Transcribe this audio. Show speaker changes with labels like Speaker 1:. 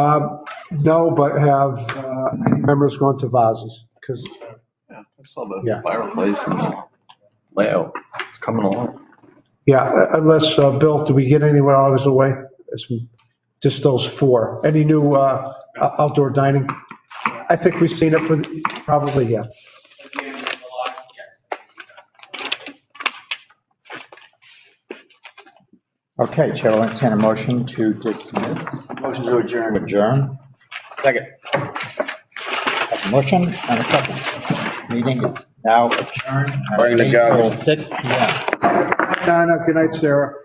Speaker 1: Um, No, but have uh, members gone to vases because
Speaker 2: Yeah, I saw
Speaker 1: Yeah.
Speaker 2: the fireplace and the layout. It's coming along.
Speaker 1: Yeah, unless, uh, Bill, do we get anywhere out of his way? It's Just those four. Any new uh, outdoor dining? I think we've seen it for, the- probably, yeah.
Speaker 3: Again, in July, yes.
Speaker 4: Okay, Chair will entertain a motion to dismiss. Motion to adjourn. Adjourn. Second. Have a Motion and a second. Meeting is now adjourned. oh
Speaker 5: Bring the gavel.
Speaker 4: Six P M.
Speaker 1: Donna, good night, Sarah.